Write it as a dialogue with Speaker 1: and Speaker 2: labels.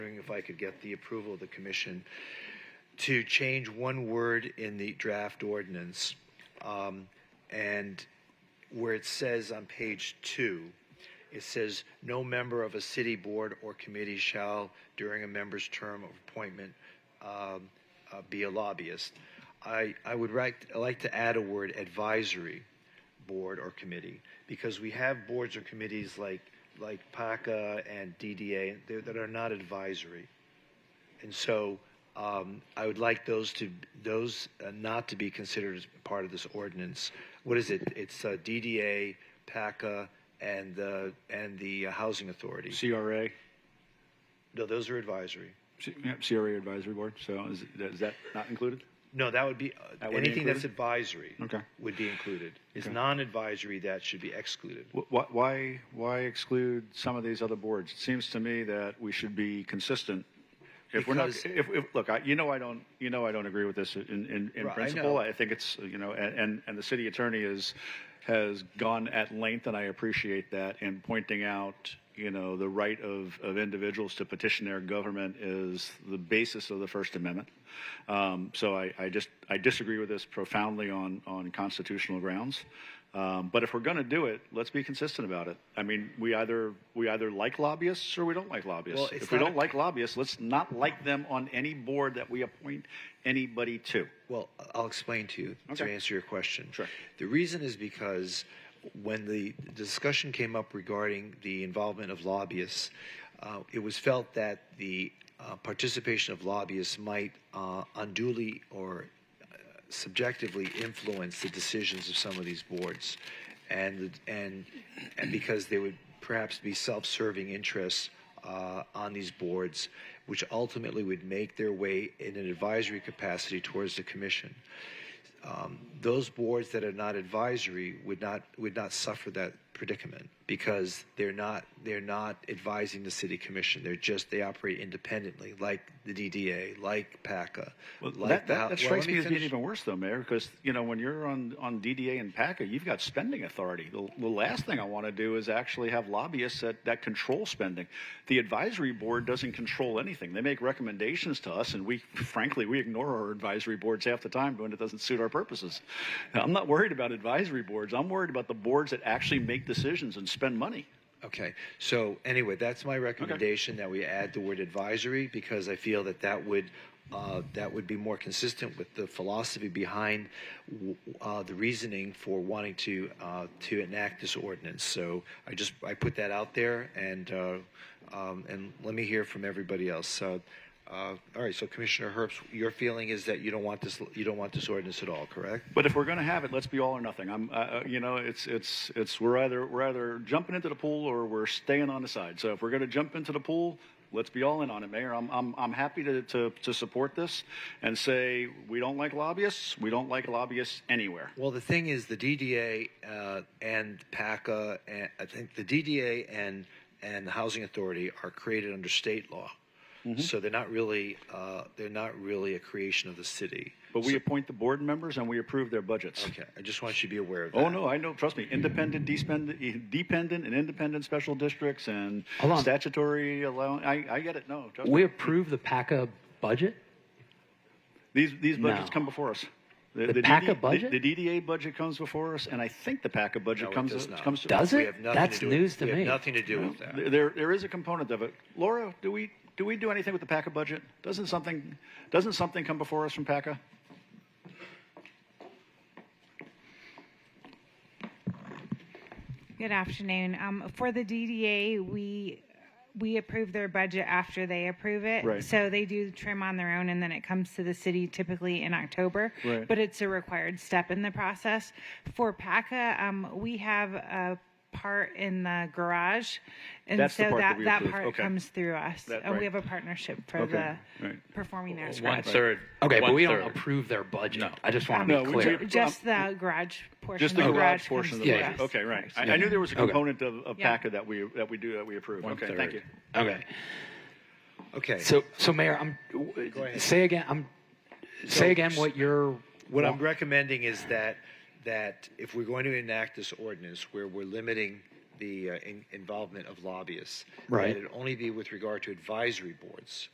Speaker 1: if I could get the approval of the commission to change one word in the draft ordinance. um, And where it says on page two, it says, "No member of a city board or committee shall, during a member's term of appointment, um, uh, be a lobbyist." I, I would like, like to add a word advisory board or committee because we have boards or committees like, like PACA and DDA that that are not advisory. And so um, I would like those to, those uh, not to be considered as part of this ordinance. What is it? It's uh, DDA, PACA, and the, and the uh, Housing Authority.
Speaker 2: CRA,
Speaker 1: No, those are advisory.
Speaker 2: C- yeah, CRA Advisory Board, so is, is that not included?
Speaker 1: No, that would be, uh,
Speaker 2: That would be
Speaker 1: anything that's advisory
Speaker 2: Okay.
Speaker 1: would be included. Is
Speaker 2: Okay.
Speaker 1: non-advisory, that should be excluded.
Speaker 2: Wh- wh- Why, why exclude some of these other boards? It seems to me that we should be consistent. If we're not,
Speaker 1: Because-
Speaker 2: if, if, look, I, you know I don't, you know I don't agree with this in, in, in
Speaker 1: Right, I
Speaker 2: principle.
Speaker 1: know.
Speaker 2: I think it's, you know, and, and, and the city attorney is, has gone at length, and I appreciate that, in pointing out, you know, the right of, of individuals to petition their government is the basis of the First Amendment. Um, so I, I just, I disagree with this profoundly on, on constitutional grounds. Um, but if we're going to do it, let's be consistent about it. I mean, we either, we either like lobbyists or we don't like lobbyists.
Speaker 1: Well, it's
Speaker 2: If we
Speaker 1: not a-
Speaker 2: don't like lobbyists, let's not like them on any board that we appoint anybody to.
Speaker 1: Well, I'll explain to you to
Speaker 2: Okay.
Speaker 1: answer your question.
Speaker 2: Sure.
Speaker 1: The reason is because when the discussion came up regarding the involvement of lobbyists, uh, it was felt that the uh, participation of lobbyists might uh, unduly or uh, subjectively influence the decisions of some of these boards, and and and because they would perhaps be self-serving interests uh, on these boards, which ultimately would make their way in an advisory capacity towards the commission. Um, those boards that are not advisory would not would not suffer that predicament because they're not they're not advising the city commission. They're just they operate independently, like the DDA, like PACA. like
Speaker 2: that,
Speaker 1: the
Speaker 2: that,
Speaker 1: Hou-
Speaker 2: that
Speaker 1: Well, let
Speaker 2: strikes me as being
Speaker 1: finish.
Speaker 2: even worse, though, Mayor, because you know when you're on, on DDA and PACA, you've got spending authority. The, the last thing I want to do is actually have lobbyists that, that control spending. The advisory board doesn't control anything. They make recommendations to us, and we, frankly, we ignore our advisory boards half the time when it doesn't suit our purposes. I'm not worried about advisory boards. I'm worried about the boards that actually make decisions and spend money.
Speaker 1: Okay, so anyway, that's my recommendation that we add the word advisory because I feel that that would, uh, that would be more consistent with the philosophy behind w- uh, the reasoning for wanting to, uh, to enact this ordinance. So I just, I put that out there and, uh, um, and let me hear from everybody else. So, uh, all right, so Commissioner Herbst, your feeling is that you don't want this, you don't want this ordinance at all, correct?
Speaker 2: But if we're going to have it, let's be all or nothing. I'm, uh, uh, you know, it's it's it's we're either we're either jumping into the pool or we're staying on the side. So if we're going to jump into the pool, let's be all in on it, Mayor. I'm I'm I'm happy to to to support this and say we don't like lobbyists. We don't like lobbyists anywhere.
Speaker 1: Well, the thing is, the DDA uh, and PACA, and I think the DDA and and the Housing Authority are created under state law,
Speaker 2: Mm-hmm.
Speaker 1: so they're not really uh, they're not really a creation of the city.
Speaker 2: But we appoint the board members and we approve their budgets.
Speaker 1: Okay, I just want you to be aware of that.
Speaker 2: Oh no, I know. Trust me, independent, despend- e, dependent, and independent special districts and
Speaker 3: Hold on.
Speaker 2: statutory allowance. I, I get it. No, trust me.
Speaker 3: We approve the PACA budget?
Speaker 2: These, these budgets
Speaker 3: No.
Speaker 2: come before us.
Speaker 3: The PACA
Speaker 2: DD
Speaker 3: budget?
Speaker 2: The, the DDA budget comes before us, and I think the PACA budget
Speaker 1: No, it
Speaker 2: comes
Speaker 1: does
Speaker 2: to-
Speaker 1: not.
Speaker 2: comes to
Speaker 3: Does
Speaker 1: We
Speaker 3: it?
Speaker 1: have nothing
Speaker 3: That's
Speaker 1: to do
Speaker 3: news
Speaker 1: with,
Speaker 3: to
Speaker 1: we
Speaker 3: me.
Speaker 1: Have nothing to do with that.
Speaker 2: There, there is a component of it. Laura, do we do we do anything with the PACA budget? Doesn't something doesn't something come before us from PACA?
Speaker 4: Good afternoon. Um, for the DDA, we, we approve their budget after they approve it.
Speaker 2: Right.
Speaker 4: So they do trim on their own and then it comes to the city typically in October.
Speaker 2: Right.
Speaker 4: But it's a required step in the process. For PACA, um, we have a part in the garage. And
Speaker 2: That's the
Speaker 4: so
Speaker 2: part that
Speaker 4: that,
Speaker 2: we
Speaker 4: that
Speaker 2: approve.
Speaker 4: part
Speaker 2: Okay.
Speaker 4: comes through us.
Speaker 2: That-
Speaker 4: And
Speaker 2: right.
Speaker 4: we have a partnership for
Speaker 2: Okay,
Speaker 4: the
Speaker 2: right.
Speaker 4: performing Um, arts.
Speaker 5: One
Speaker 4: garage.
Speaker 5: third.
Speaker 3: Okay, but we don't
Speaker 5: One-third.
Speaker 3: approve their budget. I just want
Speaker 2: No,
Speaker 3: to
Speaker 2: we-
Speaker 3: be
Speaker 2: we-
Speaker 3: clear.
Speaker 4: Just the garage portion.
Speaker 2: Just the garage
Speaker 4: comes
Speaker 2: portion of the
Speaker 4: through
Speaker 2: budget.
Speaker 4: us.
Speaker 2: Okay, right. I, I knew there was a
Speaker 3: Okay.
Speaker 2: component of, of
Speaker 4: Yeah.
Speaker 2: PACA that we that we do that we approve. Okay, thank you.
Speaker 3: Okay.
Speaker 1: Okay.
Speaker 3: So, so Mayor, I'm, say again, I'm, say again what you're.
Speaker 1: What I'm recommending is that, that if we're going to enact this ordinance where we're limiting the uh, in- involvement of lobbyists,
Speaker 3: Right.
Speaker 1: that it only be with regard to advisory boards.